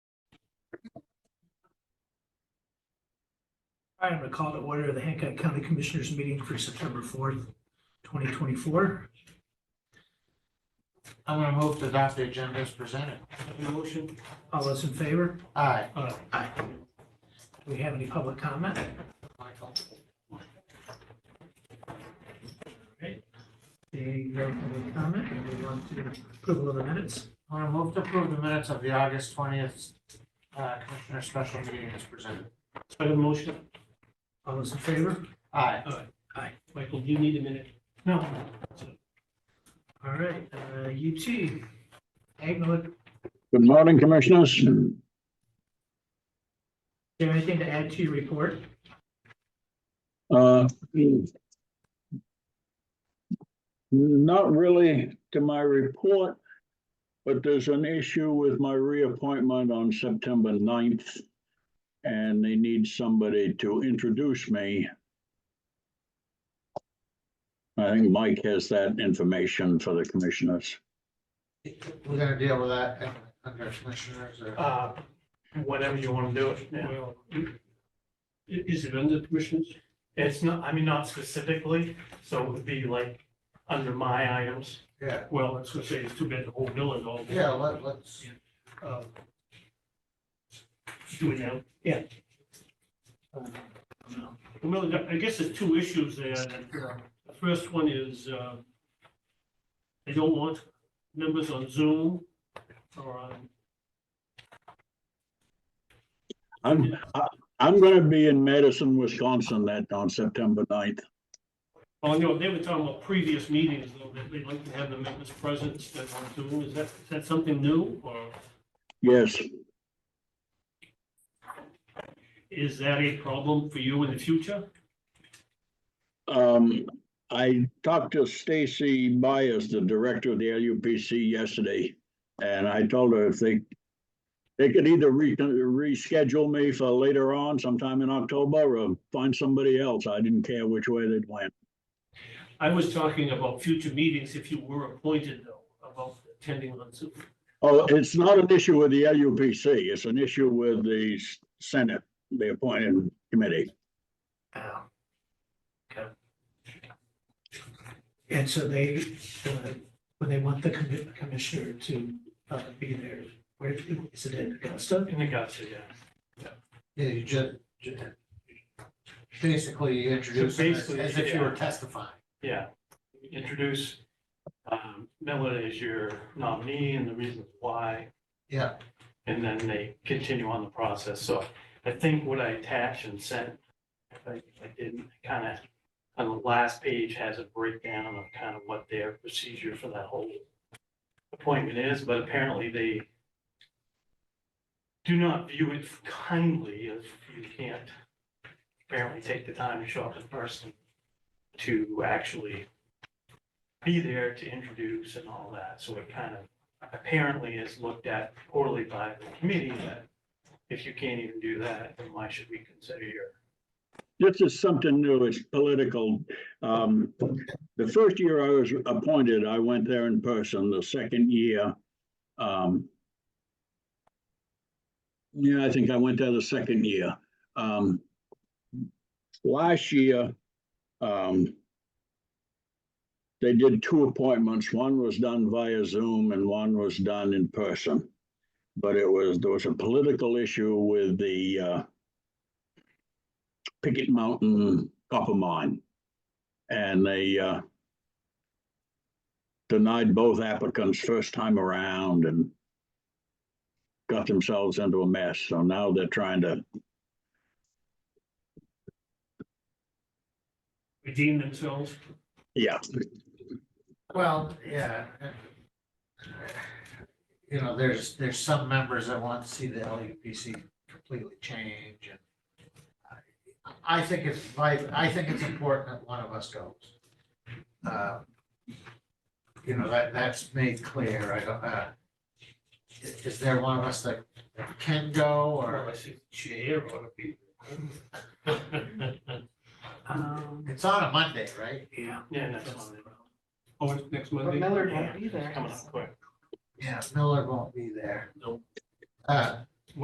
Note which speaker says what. Speaker 1: I am going to call to order the Hancock County Commissioners meeting for September fourth, twenty twenty-four.
Speaker 2: I'm gonna move to adopt the agenda as presented.
Speaker 1: Motion. All those in favor? Uh,
Speaker 2: Aye.
Speaker 1: Aye. Do we have any public comment?
Speaker 2: Michael.
Speaker 1: Seeing no public comment, we move on to approval of the minutes.
Speaker 2: I'm gonna move to approve the minutes of the August twentieth, uh, Commissioner Special Meeting as presented.
Speaker 3: Second motion,
Speaker 1: All those in favor?
Speaker 2: Aye.
Speaker 3: Michael, do you need a minute?
Speaker 2: No.
Speaker 1: All right, uh, UT, Agnew, do
Speaker 4: Good morning, Commissioners.
Speaker 1: you have anything to add to your report?
Speaker 4: Uh, Not really to my report, but there's an issue with my reappointment on September 9th. And they need somebody to introduce me. I think Mike has that information for the Commissioners.
Speaker 2: We're gonna deal with that uh, under Commissioners or,
Speaker 5: Uh, whenever you want to do it.
Speaker 3: Yeah.
Speaker 5: We'll-
Speaker 3: I- Is it under commissions?
Speaker 5: It's not, I mean, not specifically, so it would be like under my items.
Speaker 2: yeah,
Speaker 3: Well, that's what I say, it's too bad the whole bill is all.
Speaker 2: yeah, let, let's,
Speaker 3: Uh, Do it now. Well, there- I guess there's two issues there. The first one is, uh, they don't want members on Zoom or on,
Speaker 4: I'm, I- I'm going to be in Madison, Wisconsin that on September 9th.
Speaker 3: oh, no, they were talking about previous meetings, though, that they'd like to have the members present instead of on Zoom. Is that, is that something new or
Speaker 4: Yes,
Speaker 3: is that a problem for you in the future?
Speaker 4: Um, I talked to Stacy Myers, the director of the LUPC yesterday, and I told her if they they could either re- reschedule me for later on sometime in October or find somebody else. I didn't care which way they went.
Speaker 3: I was talking about future meetings if you were appointed though, about attending on Zoom.
Speaker 4: Oh, it's not an issue with the LUPC. It's an issue with the s- Senate, the appointed committee.
Speaker 1: Oh. Okay. And so they, uh, when they want the commi- commissioner to uh, be there, where is it in Augusta?
Speaker 5: In the gotcha, yeah.
Speaker 2: yeah, you just, basically you introduce them as- as if you were testifying.
Speaker 5: Yeah. Introduce um, Miller as your nominee and the reasons why,
Speaker 2: Yeah,
Speaker 5: and then they continue on the process. So I think what I attached and sent, if I if I didn't, kind of, on the last page has a breakdown of kind of what their procedure for that whole appointment is, but apparently they do not view it kindly if you can't apparently take the time to show up in person to actually be there to introduce and all that. So it kind of apparently is looked at poorly by the committee that if you can't even do that, then why should we consider your
Speaker 4: This is something new. It's political. Um, the first year I was appointed, I went there in person. The second year, um, yeah, I think I went there the second year. Um, last year, um, they did two appointments. One was done via Zoom and one was done in person. But it was, there was a political issue with the, uh, Picket Mountain copper mine. And they uh, denied both applicants first time around and got themselves into a mess. So now they're trying to,
Speaker 3: redeem themselves?
Speaker 4: yeah,
Speaker 2: well, yeah. You know, there's, there's some members that want to see the LUPC completely change and I- I think it's vital, I think it's important that one of us goes. Uh, You know, that, that's made clear, I don't, uh, is, is there one of us that can go or,
Speaker 3: Chair ought to be.
Speaker 1: Um,
Speaker 2: it's on a Monday, right?
Speaker 1: yeah.
Speaker 5: Yeah, next one.
Speaker 3: Oh, it's next
Speaker 6: But
Speaker 3: Monday?
Speaker 6: Millard
Speaker 5: Yeah,
Speaker 6: won't be there.
Speaker 5: Coming up quick.
Speaker 2: Yeah, Miller won't be there.
Speaker 3: No.
Speaker 2: Uh,